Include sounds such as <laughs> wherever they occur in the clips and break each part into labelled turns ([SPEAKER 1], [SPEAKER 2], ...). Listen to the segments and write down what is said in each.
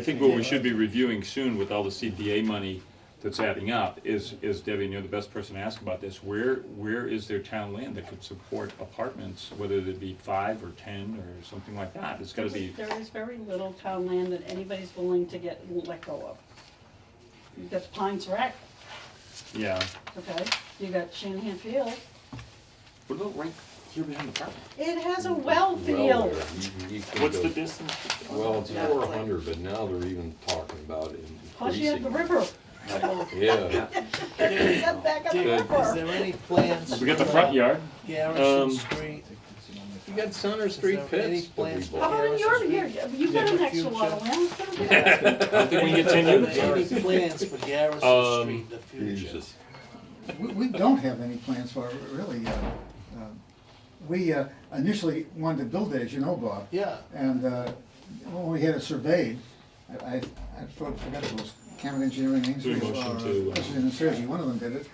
[SPEAKER 1] I think what we should be reviewing soon with all the CPA money that's adding up is, is Debbie, and you're the best person to ask about this, where, where is there town land that could support apartments, whether they be five or ten or something like that? It's gotta be,
[SPEAKER 2] There is very little town land that anybody's willing to get, let go of. You've got Pines Rec,
[SPEAKER 1] yeah.
[SPEAKER 2] okay, you got Shanahan Field,
[SPEAKER 1] What about right here behind the park?
[SPEAKER 2] it has a well field.
[SPEAKER 1] What's the distance?
[SPEAKER 3] Well, it's
[SPEAKER 4] Yeah.
[SPEAKER 3] four hundred, but now they're even talking about
[SPEAKER 2] Plus you have the
[SPEAKER 3] increasing.
[SPEAKER 2] river,
[SPEAKER 3] Yeah,
[SPEAKER 1] <laughs>
[SPEAKER 2] It's set back on the
[SPEAKER 3] Yeah.
[SPEAKER 4] Is
[SPEAKER 2] river.
[SPEAKER 4] there any plans?
[SPEAKER 1] We got the
[SPEAKER 4] for,
[SPEAKER 1] front
[SPEAKER 4] uh,
[SPEAKER 1] yard, Um,
[SPEAKER 4] Garrison Street.
[SPEAKER 3] you got Center
[SPEAKER 4] Street
[SPEAKER 3] Street
[SPEAKER 4] pits
[SPEAKER 3] pits
[SPEAKER 4] any plans
[SPEAKER 2] How about in your, your, you've got
[SPEAKER 4] Yeah.
[SPEAKER 2] an extra lot of land, so do that.
[SPEAKER 1] I think we can get ten
[SPEAKER 4] <laughs> Any
[SPEAKER 1] units.
[SPEAKER 4] plans for Garrison
[SPEAKER 1] Um,
[SPEAKER 4] Street in the future?
[SPEAKER 3] Jesus.
[SPEAKER 5] We, we don't have any plans for it, really. uh, uh, We uh, initially wanted to build it, as you know, Bob.
[SPEAKER 4] Yeah,
[SPEAKER 5] And uh, when we had it surveyed, I, I I for- forgot it was Cameron Engineering,
[SPEAKER 1] Do a
[SPEAKER 5] Amesbury, or
[SPEAKER 1] motion to, uh,
[SPEAKER 5] President and Sergi, one of them did it.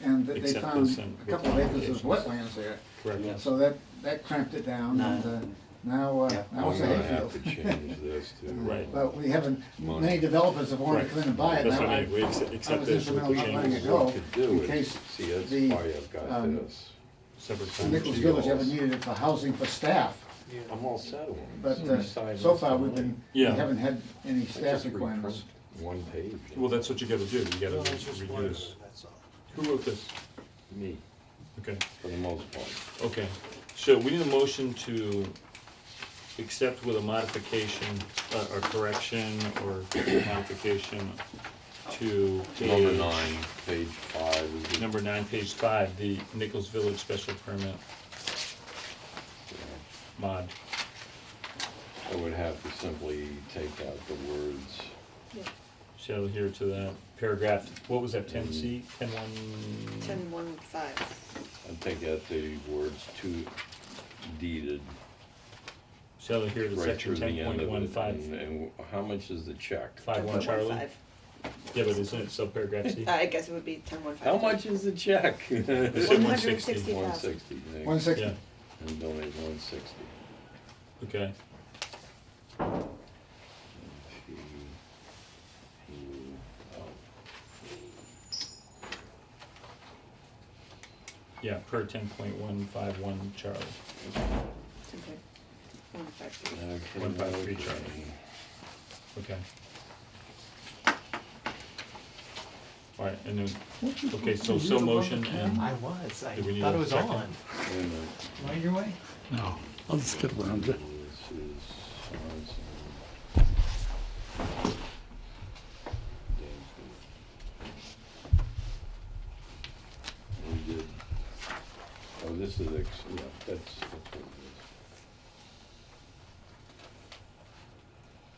[SPEAKER 5] And that they
[SPEAKER 1] Accept
[SPEAKER 5] found
[SPEAKER 1] this and
[SPEAKER 5] a couple of acres of
[SPEAKER 1] with
[SPEAKER 5] wetlands there.
[SPEAKER 1] Correct.
[SPEAKER 5] So that, that cramped it down and uh, now, uh, now
[SPEAKER 3] I'm
[SPEAKER 5] it's a
[SPEAKER 3] gonna have to
[SPEAKER 5] hayfield.
[SPEAKER 3] change this
[SPEAKER 5] <laughs>
[SPEAKER 3] to.
[SPEAKER 1] Right.
[SPEAKER 5] But we haven't,
[SPEAKER 3] Money.
[SPEAKER 5] many developers have wanted to come in and buy it.
[SPEAKER 1] That's
[SPEAKER 5] Now
[SPEAKER 1] what I
[SPEAKER 5] I-
[SPEAKER 1] mean, we accept
[SPEAKER 5] I
[SPEAKER 1] accept
[SPEAKER 5] was
[SPEAKER 1] this with
[SPEAKER 5] instrumental
[SPEAKER 1] the
[SPEAKER 5] in letting it
[SPEAKER 1] changes.
[SPEAKER 5] go,
[SPEAKER 3] What to do
[SPEAKER 5] in
[SPEAKER 3] is-
[SPEAKER 5] case
[SPEAKER 3] See, that's
[SPEAKER 5] the,
[SPEAKER 3] why I've got
[SPEAKER 5] um,
[SPEAKER 3] this.
[SPEAKER 1] Separate
[SPEAKER 5] the Nichols Village ever needed it for housing for staff,
[SPEAKER 3] I'm all settled.
[SPEAKER 5] but uh, so far we've been, we
[SPEAKER 1] Yeah.
[SPEAKER 5] haven't had any
[SPEAKER 3] I just
[SPEAKER 5] staff requirements.
[SPEAKER 3] reprint One page.
[SPEAKER 1] Well, that's what you gotta do, you gotta
[SPEAKER 4] well, I was just wondering,
[SPEAKER 1] reduce.
[SPEAKER 4] that's all.
[SPEAKER 1] Who wrote this?
[SPEAKER 3] Me,
[SPEAKER 1] Okay.
[SPEAKER 3] for the most part.
[SPEAKER 1] Okay, so we need a motion to accept with a modification, uh, or correction, or modification to
[SPEAKER 3] Number
[SPEAKER 1] page-
[SPEAKER 3] nine, page five. is the-
[SPEAKER 1] Number nine, page five, the Nichols Village special permit mod.
[SPEAKER 3] I would have to simply take out the words.
[SPEAKER 1] Shall adhere to that paragraph, what was that, ten C,
[SPEAKER 3] Mm-hmm.
[SPEAKER 1] ten one?
[SPEAKER 4] Ten one five.
[SPEAKER 3] I'd take out the words to deeded.
[SPEAKER 1] Shall adhere to
[SPEAKER 3] right
[SPEAKER 1] section
[SPEAKER 3] through the
[SPEAKER 1] ten
[SPEAKER 3] end
[SPEAKER 1] point one
[SPEAKER 3] of it. Mm-hmm. And
[SPEAKER 1] five,
[SPEAKER 3] and how much is the check?
[SPEAKER 1] five one Charlie? Yeah, but isn't it subparagraph <laughs> C?
[SPEAKER 6] Uh, I guess it would be ten one five.
[SPEAKER 3] How much is the check? <laughs>
[SPEAKER 1] It
[SPEAKER 3] One
[SPEAKER 1] said one sixty,
[SPEAKER 6] thousand.
[SPEAKER 3] sixty, Nick.
[SPEAKER 5] One sixty,
[SPEAKER 1] yeah,
[SPEAKER 3] And donate one sixty.
[SPEAKER 1] okay,
[SPEAKER 3] oh,
[SPEAKER 1] yeah, per ten point one five one Charlie.
[SPEAKER 6] One five three.
[SPEAKER 1] One five three, Charlie. Okay. All right, and then, okay, so so motion and,
[SPEAKER 4] I was, I
[SPEAKER 1] Do we need
[SPEAKER 4] thought
[SPEAKER 1] a
[SPEAKER 4] it was
[SPEAKER 1] second?
[SPEAKER 4] on.
[SPEAKER 5] right your way?
[SPEAKER 7] No, I'll just get around it.
[SPEAKER 3] We did, oh, this is, ex- yeah, that's, that's what it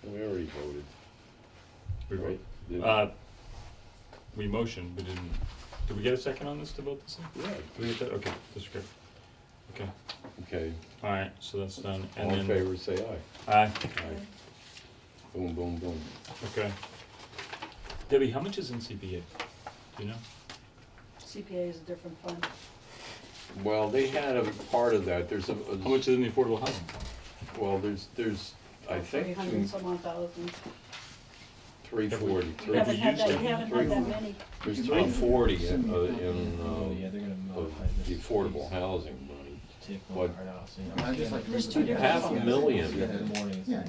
[SPEAKER 3] is. We already voted,
[SPEAKER 1] we
[SPEAKER 3] right?
[SPEAKER 1] vote.
[SPEAKER 3] Did-
[SPEAKER 1] uh, we motioned, we didn't, did we get a second on this to vote this in?
[SPEAKER 3] Yeah,
[SPEAKER 1] Did we get that, okay, that's good. Okay,
[SPEAKER 3] okay,
[SPEAKER 1] all right, so that's done,
[SPEAKER 3] all in
[SPEAKER 1] and then,
[SPEAKER 3] favor, say aye.
[SPEAKER 1] aye,
[SPEAKER 3] Aye. Boom, boom, boom.
[SPEAKER 1] okay. Debbie, how much is in CPA? Do you know?
[SPEAKER 2] CPA is a different fund.
[SPEAKER 3] Well, they had a part of that, there's a,
[SPEAKER 1] How much is in the affordable housing?
[SPEAKER 3] well, there's, there's, I
[SPEAKER 2] Three
[SPEAKER 3] think,
[SPEAKER 2] hundred and some odd thousand.
[SPEAKER 3] three forty,
[SPEAKER 2] You
[SPEAKER 3] three,
[SPEAKER 2] haven't had that, you
[SPEAKER 1] used it.
[SPEAKER 2] haven't had that many.
[SPEAKER 3] there's three forty in, uh, in, um, of the affordable housing money. But
[SPEAKER 5] I'd just like to-
[SPEAKER 2] There's two different
[SPEAKER 3] half a
[SPEAKER 2] funds.
[SPEAKER 3] million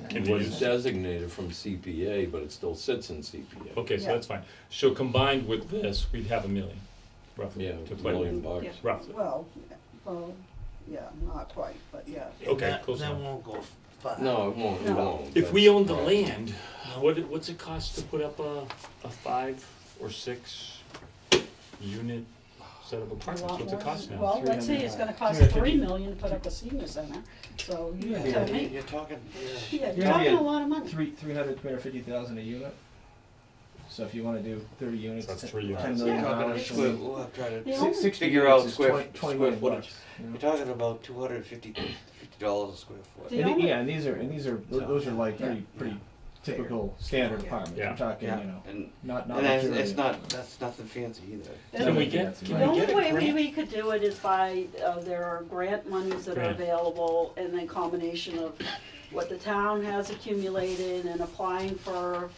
[SPEAKER 1] Can be
[SPEAKER 3] was
[SPEAKER 1] used.
[SPEAKER 3] designated from CPA, but it still sits in CPA.
[SPEAKER 1] Okay, so
[SPEAKER 2] Yeah.
[SPEAKER 1] that's fine. So combined with this, we'd have a million, roughly,
[SPEAKER 3] Yeah,
[SPEAKER 1] to
[SPEAKER 3] a
[SPEAKER 1] play
[SPEAKER 3] million
[SPEAKER 1] with,
[SPEAKER 3] bucks.
[SPEAKER 6] Yeah.
[SPEAKER 1] roughly.
[SPEAKER 2] Well, well, yeah, not quite, but yeah.
[SPEAKER 1] Okay,
[SPEAKER 4] That-
[SPEAKER 1] close
[SPEAKER 4] That
[SPEAKER 1] enough.
[SPEAKER 4] won't go far.
[SPEAKER 3] No, it won't, it
[SPEAKER 2] No.
[SPEAKER 3] won't.
[SPEAKER 1] If we
[SPEAKER 3] That's
[SPEAKER 1] owned the
[SPEAKER 3] right.
[SPEAKER 1] land, what, it- what's it cost to put up a, a five or six unit set of
[SPEAKER 2] A
[SPEAKER 1] apartments?
[SPEAKER 2] lot
[SPEAKER 1] What's it
[SPEAKER 2] more
[SPEAKER 1] cost
[SPEAKER 2] than-
[SPEAKER 1] now?
[SPEAKER 2] Well, let's see, it's gonna cost three million to put up a senior center, so you
[SPEAKER 4] Yeah,
[SPEAKER 2] tell me.
[SPEAKER 4] You're talking, yeah.
[SPEAKER 2] Yeah,
[SPEAKER 8] Yeah,
[SPEAKER 2] talking a
[SPEAKER 8] yeah.
[SPEAKER 2] lot of money.
[SPEAKER 8] Three, three hundred, three hundred fifty thousand a unit. So if you wanna do thirty units,
[SPEAKER 1] That's
[SPEAKER 8] ten
[SPEAKER 1] three units.
[SPEAKER 8] ten million
[SPEAKER 2] Yeah.
[SPEAKER 8] dollars. so
[SPEAKER 4] Square- we'll try to-
[SPEAKER 2] Yeah.
[SPEAKER 4] You're
[SPEAKER 2] only
[SPEAKER 8] six- sixty
[SPEAKER 9] figure
[SPEAKER 8] units
[SPEAKER 9] out
[SPEAKER 8] is
[SPEAKER 9] square-
[SPEAKER 8] 20 20
[SPEAKER 9] square
[SPEAKER 8] million
[SPEAKER 9] footage.
[SPEAKER 8] bucks, you know?
[SPEAKER 4] talking about two hundred and fifty, fifty dollars a square foot.
[SPEAKER 2] The
[SPEAKER 8] And the-
[SPEAKER 2] only-
[SPEAKER 8] yeah, and these are, and these are, tho- those are like
[SPEAKER 2] Yeah.
[SPEAKER 8] pretty, pretty typical standard apartments,
[SPEAKER 1] Yeah.
[SPEAKER 8] I'm talking, you
[SPEAKER 9] Yeah,
[SPEAKER 8] know,
[SPEAKER 9] and,
[SPEAKER 8] not, not
[SPEAKER 9] and that's,
[SPEAKER 8] luxury.
[SPEAKER 9] it's not, that's nothing fancy either.
[SPEAKER 2] That's-
[SPEAKER 1] Can we
[SPEAKER 8] Yeah,
[SPEAKER 1] get,
[SPEAKER 8] that's
[SPEAKER 1] can
[SPEAKER 2] The
[SPEAKER 1] we
[SPEAKER 2] only
[SPEAKER 1] get
[SPEAKER 2] way
[SPEAKER 1] a
[SPEAKER 2] we,
[SPEAKER 1] grant?
[SPEAKER 2] we could do it is by, uh, there are grant monies that are
[SPEAKER 1] Grant.
[SPEAKER 2] available and then combination of what the town has accumulated and applying for